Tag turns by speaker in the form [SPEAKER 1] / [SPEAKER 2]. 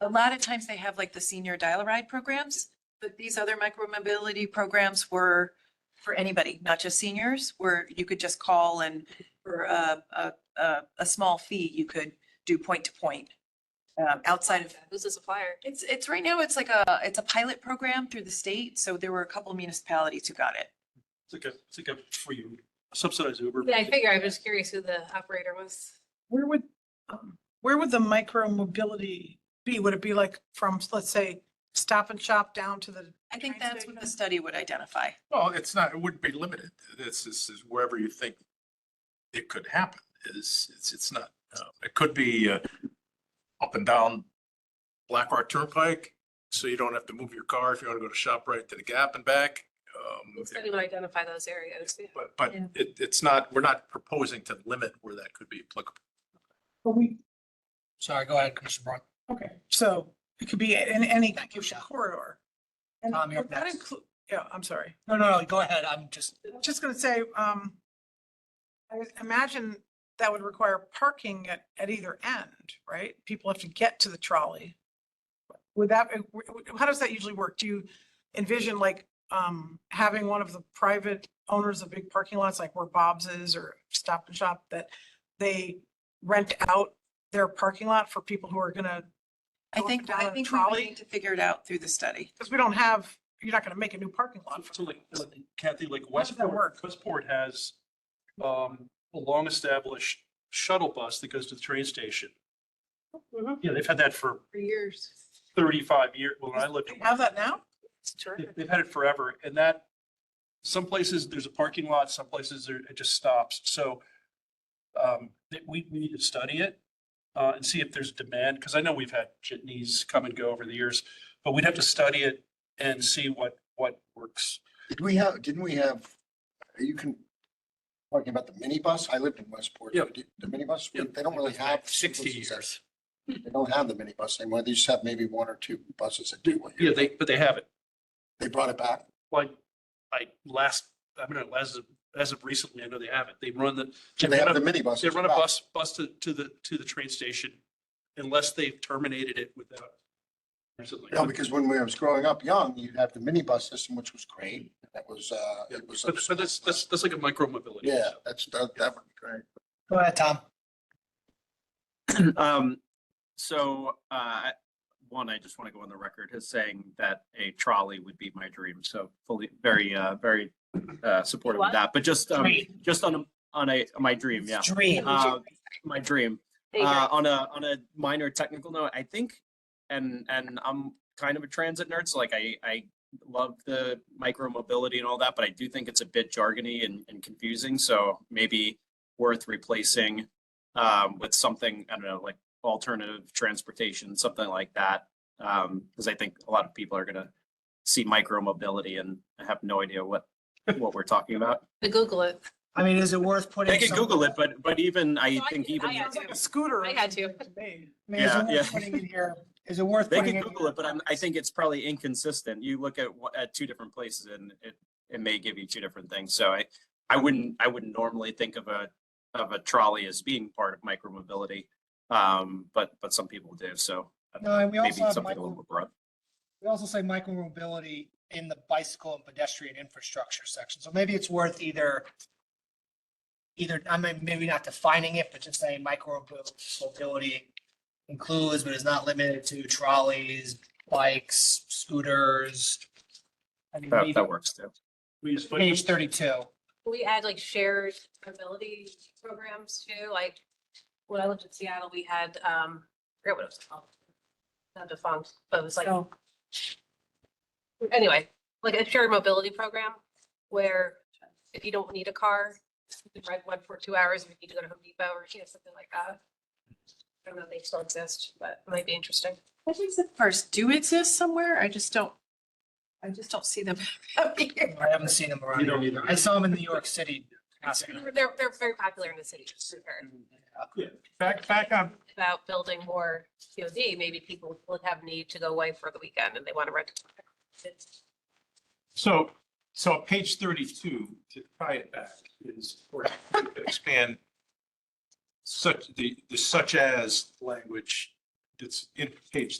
[SPEAKER 1] a lot of times they have like the senior dial-a-ride programs, but these other micromobility programs were for anybody, not just seniors, where you could just call and for a, a, a, a small fee, you could do point to point. Um, outside of,
[SPEAKER 2] Who's the supplier?
[SPEAKER 1] it's, it's right now, it's like a, it's a pilot program through the state. So there were a couple municipalities who got it.
[SPEAKER 3] It's like a, it's like a free Uber, subsidized Uber.
[SPEAKER 2] Yeah, I figure, I was just curious who the operator was.
[SPEAKER 4] Where would, um, where would the micro mobility be? Would it be like from, let's say, Stop and Shop down to the,
[SPEAKER 1] I think
[SPEAKER 4] Train
[SPEAKER 1] that's what the
[SPEAKER 4] station.
[SPEAKER 1] study would identify.
[SPEAKER 5] Well, it's not, it wouldn't be limited. This is is wherever you think it could happen is, it's, it's not, uh, it could be uh, up and down Black Rock Turnpike, so you don't have to move your car if you want to go to ShopRite to the Gap and back. um,
[SPEAKER 2] Study would identify those areas. yeah.
[SPEAKER 5] But, but
[SPEAKER 1] Yeah.
[SPEAKER 5] it, it's not, we're not proposing to limit where that could be applicable.
[SPEAKER 4] but we,
[SPEAKER 6] Sorry, go ahead, Commissioner Braun.
[SPEAKER 4] okay, so it could be in any
[SPEAKER 6] Thank you, Michelle.
[SPEAKER 4] corridor. And
[SPEAKER 6] Tom, you're
[SPEAKER 4] would that
[SPEAKER 6] next.
[SPEAKER 4] include- Yeah, I'm sorry.
[SPEAKER 6] No, no, no, go ahead. I'm just,
[SPEAKER 4] Just gonna say, um, I would imagine that would require parking at, at either end, right? People have to get to the trolley. Would that, uh, how does that usually work? Do you envision like, um, having one of the private owners of big parking lots, like where Bob's is or Stop and Shop, that they rent out their parking lot for people who are gonna,
[SPEAKER 1] I
[SPEAKER 4] Go up and
[SPEAKER 1] think, I
[SPEAKER 4] down on a
[SPEAKER 1] think we would
[SPEAKER 4] trolley?
[SPEAKER 1] need to figure it out through the study.
[SPEAKER 4] because we don't have, you're not gonna make a new parking lot. for
[SPEAKER 3] So like like Kathy, like
[SPEAKER 4] does that
[SPEAKER 3] Westport,
[SPEAKER 4] work?
[SPEAKER 3] Westport has um, a long-established shuttle bus that goes to the train station.
[SPEAKER 2] Mhm.
[SPEAKER 3] Yeah, they've had that for
[SPEAKER 2] For years.
[SPEAKER 3] thirty-five years. Well, when I lived
[SPEAKER 4] Do
[SPEAKER 3] in
[SPEAKER 4] you Have that now?
[SPEAKER 2] It's
[SPEAKER 3] They-
[SPEAKER 2] terrific.
[SPEAKER 3] They've had it forever and that, some places there's a parking lot, some places there- it just stops. So um, that we, we need to study it uh, and see if there's demand, because I know we've had jitneys come and go over the years, but we'd have to study it and see what, what works.
[SPEAKER 7] Did we have, didn't we have, are you can, talking about the minibus? I lived in Westport.
[SPEAKER 3] Yeah.
[SPEAKER 7] Did- The minibus,
[SPEAKER 3] Yeah.
[SPEAKER 7] they don't really have.
[SPEAKER 6] sixty years.
[SPEAKER 7] They don't have the minibus anymore. They just have maybe one or two buses that do. what you-
[SPEAKER 3] Yeah, they, but they have it.
[SPEAKER 7] They brought it back.
[SPEAKER 3] Like, I last, I mean, as of, as of recently, I know they have it. They run the.
[SPEAKER 7] They have the
[SPEAKER 3] So
[SPEAKER 7] minibus.
[SPEAKER 3] They run a bus, bus to, to the, to the train station unless they've terminated it without. recently.
[SPEAKER 7] No, because when we was growing up young, you'd have the minibus system, which was great. That was, uh,
[SPEAKER 3] Yeah,
[SPEAKER 7] it was.
[SPEAKER 3] But but that's, that's, that's like a micro mobility.
[SPEAKER 7] Yeah, that's, that, that would be great.
[SPEAKER 6] Go ahead, Tom.
[SPEAKER 8] Um, so, uh, one, I just want to go on the record as saying that a trolley would be my dream. So fully, very, uh, very, uh, supportive
[SPEAKER 2] What?
[SPEAKER 8] of that, but just, um,
[SPEAKER 6] Dream.
[SPEAKER 8] just on, a on a, my dream, yeah.
[SPEAKER 6] Dream.
[SPEAKER 8] Uh, my dream.
[SPEAKER 2] They
[SPEAKER 8] Uh,
[SPEAKER 2] got-
[SPEAKER 8] on a on a minor technical note, I think, and and I'm kind of a transit nerd, so like I I love the micro mobility and all that, but I do think it's a bit jargony and, and confusing. So maybe worth replacing um, with something I don't know, like alternative transportation, something like that, because I think a lot of people are gonna see micro mobility and have no idea what what we're talking about.
[SPEAKER 2] They Google it.
[SPEAKER 6] I mean, is it worth putting?
[SPEAKER 8] They can
[SPEAKER 6] some-
[SPEAKER 8] Google it, but but even I
[SPEAKER 2] No, I
[SPEAKER 8] think
[SPEAKER 2] did-
[SPEAKER 8] even
[SPEAKER 2] I had
[SPEAKER 4] It's like
[SPEAKER 2] to.
[SPEAKER 4] a scooter. or
[SPEAKER 2] I had to.
[SPEAKER 4] something me.
[SPEAKER 6] I mean, is it
[SPEAKER 8] Yeah,
[SPEAKER 6] worth
[SPEAKER 8] yeah.
[SPEAKER 6] putting in here? Is it worth
[SPEAKER 8] They
[SPEAKER 6] putting?
[SPEAKER 8] can
[SPEAKER 6] in
[SPEAKER 8] Google
[SPEAKER 6] your
[SPEAKER 8] it, but I'm, I
[SPEAKER 6] packets?
[SPEAKER 8] think it's probably inconsistent. You look at, wha- at two different places and it, it may give you two different things. So I, I wouldn't, I wouldn't normally think of a, of a trolley as being part of micromobility. Um, but, but some people do, so I don't
[SPEAKER 6] No,
[SPEAKER 8] know,
[SPEAKER 6] and we
[SPEAKER 8] maybe
[SPEAKER 6] also have
[SPEAKER 8] something a
[SPEAKER 6] micro-
[SPEAKER 8] little more broad.
[SPEAKER 6] We also say micro mobility in the bicycle and pedestrian infrastructure section. So maybe it's worth either either, I mean, maybe not defining it, but just saying micro mobility includes, but is not limited to trolleys, bikes, scooters. I mean,
[SPEAKER 8] That,
[SPEAKER 6] maybe
[SPEAKER 8] that works too.
[SPEAKER 3] We just put-
[SPEAKER 6] Page thirty-two.
[SPEAKER 2] Can We add like shared mobility programs too, like when I lived in Seattle, we had, um, I forget what it was called. Not defunct, but it was like. Anyway, like a shared mobility program where if you don't need a car, you can ride one for two hours if you need to go to Home Depot or you know, something like that. I don't know if they still exist, but it might be interesting.
[SPEAKER 1] I think the first do exist somewhere. I just don't, I just don't see them. up here.
[SPEAKER 6] I haven't seen them around
[SPEAKER 3] You don't
[SPEAKER 6] here either. I saw them in New York City.
[SPEAKER 2] They're, they're very popular in the city, just to be fair.
[SPEAKER 6] Mm-hmm. uh,
[SPEAKER 5] Back, back on
[SPEAKER 2] about building more COD, maybe people would have need to go away for the weekend and they want to rent.
[SPEAKER 5] So, so page thirty-two, to tie it back, is for to expand such, the, the such as language that's in page